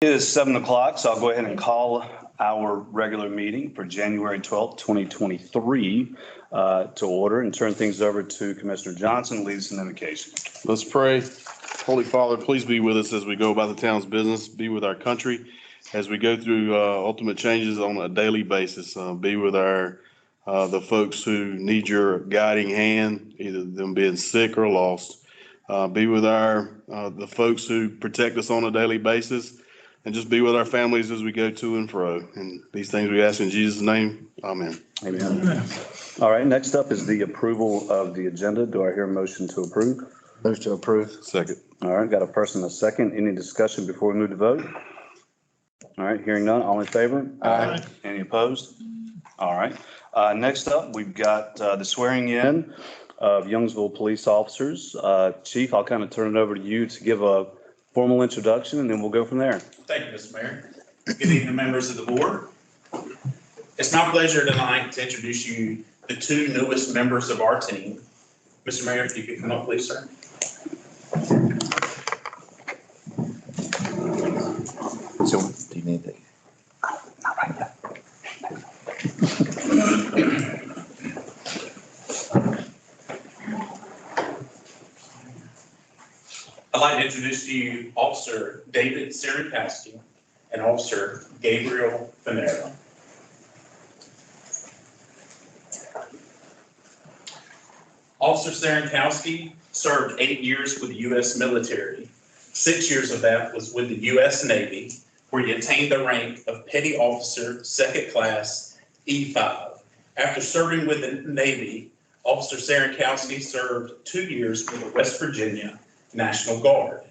It is seven o'clock, so I'll go ahead and call our regular meeting for January 12th, 2023 uh, to order and turn things over to Commissioner Johnson, lead us in invocation. Let's pray. Holy Father, please be with us as we go about the town's business, be with our country as we go through uh, ultimate changes on a daily basis. Uh, Be with our, uh, the folks who need your guiding hand, either them being sick or lost. Uh, Be with our, uh, the folks who protect us on a daily basis. And just be with our families as we go to and fro. And these things we ask in Jesus' name. Amen. Amen. All right, next up is the approval of the agenda. Do I hear a motion to approve? Move to approve. Second. All right, got a person, a second. Any discussion before we move to vote? All right, hearing none, all in favor? Aye. Any opposed? All right, uh, next up, we've got, uh, the swearing in of Youngsville police officers. Uh, Chief, I'll kind of turn it over to you to give a formal introduction and then we'll go from there. Thank you, Mr. Mayor. Good evening, members of the board. It's my pleasure tonight to introduce you the two newest members of our team. Mr. Mayor, if you could come up, please, sir. So do you need the? I'd like to introduce to you Officer David Sirikowski and Officer Gabriel Finero. Officer Sirikowski served eight years with the U.S. military. Six years of that was with the U.S. Navy, where he attained the rank of Petty Officer, Second Class, E5. After serving with the Navy, Officer Sirikowski served two years with the West Virginia National Guard.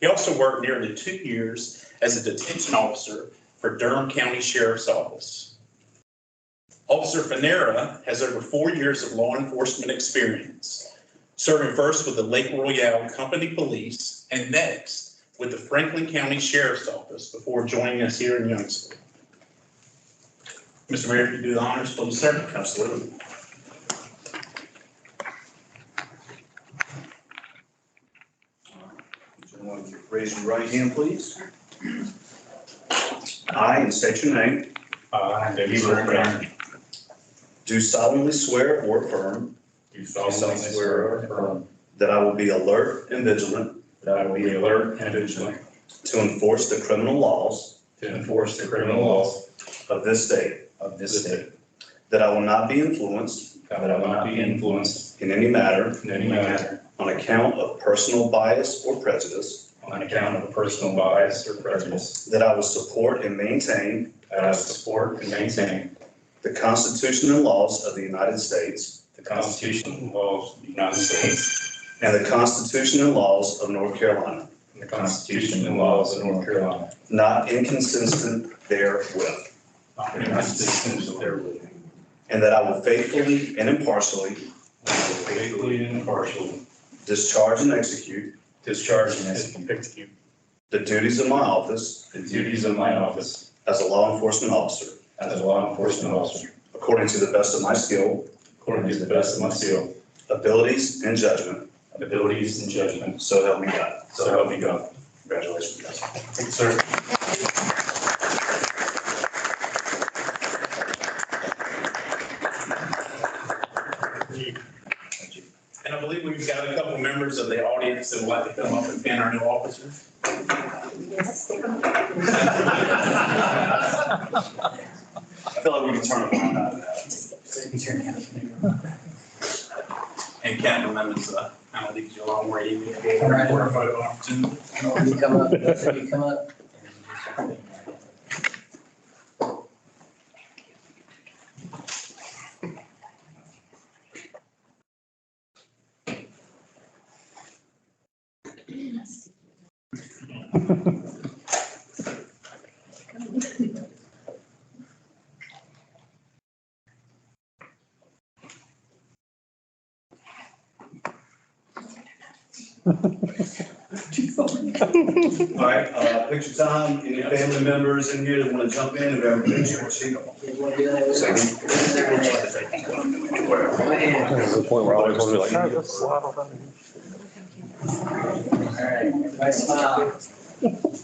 He also worked nearly two years as a detention officer for Durham County Sheriff's Office. Officer Fanera has over four years of law enforcement experience, serving first with the Lake Royale Company Police and next with the Franklin County Sheriff's Office before joining us here in Youngsville. Mr. Mayor, if you do the honors, please, sir. Absolutely. Gentlemen, would you Raise your right hand, please. I, and state your name, I, David Sirikowski. do solemnly swear or affirm Do affirm that I will be alert and vigilant That I will be alert and vigilant to enforce the criminal laws to enforce the criminal laws of this state, of this state. that I will not be influenced That I will not be influenced in any matter in any manner on account of personal bias or prejudice, on account of personal bias or prejudice. that I will support and maintain That I will support and maintain the Constitution and laws of the United States the Constitution and laws of the United States and the Constitution and laws of North Carolina, and the Constitution and laws of North Carolina. not inconsistent therewith, And the Constitution therewith. and that I will faithfully and impartially And I will faithfully and impartially discharge and execute discharge and execute the duties of my office the duties of my office as a law enforcement officer as a law enforcement officer according to the best of my skill, according to the best of my skill, abilities, and judgment, abilities, and judgment. so help me God. So help me God. Congratulations, guys. Thank you, sir. And I believe we've got a couple members of the audience that would like to come up and fan our new officer. I feel like we can turn a blind eye to that. And cabinet members, uh, kind of leads you a long way. You can get Right. a photo opportunity. You come up, you come up. All right, uh, picture time, any family members in here that want to jump in and grab a picture or see? Second. All right, everybody smile.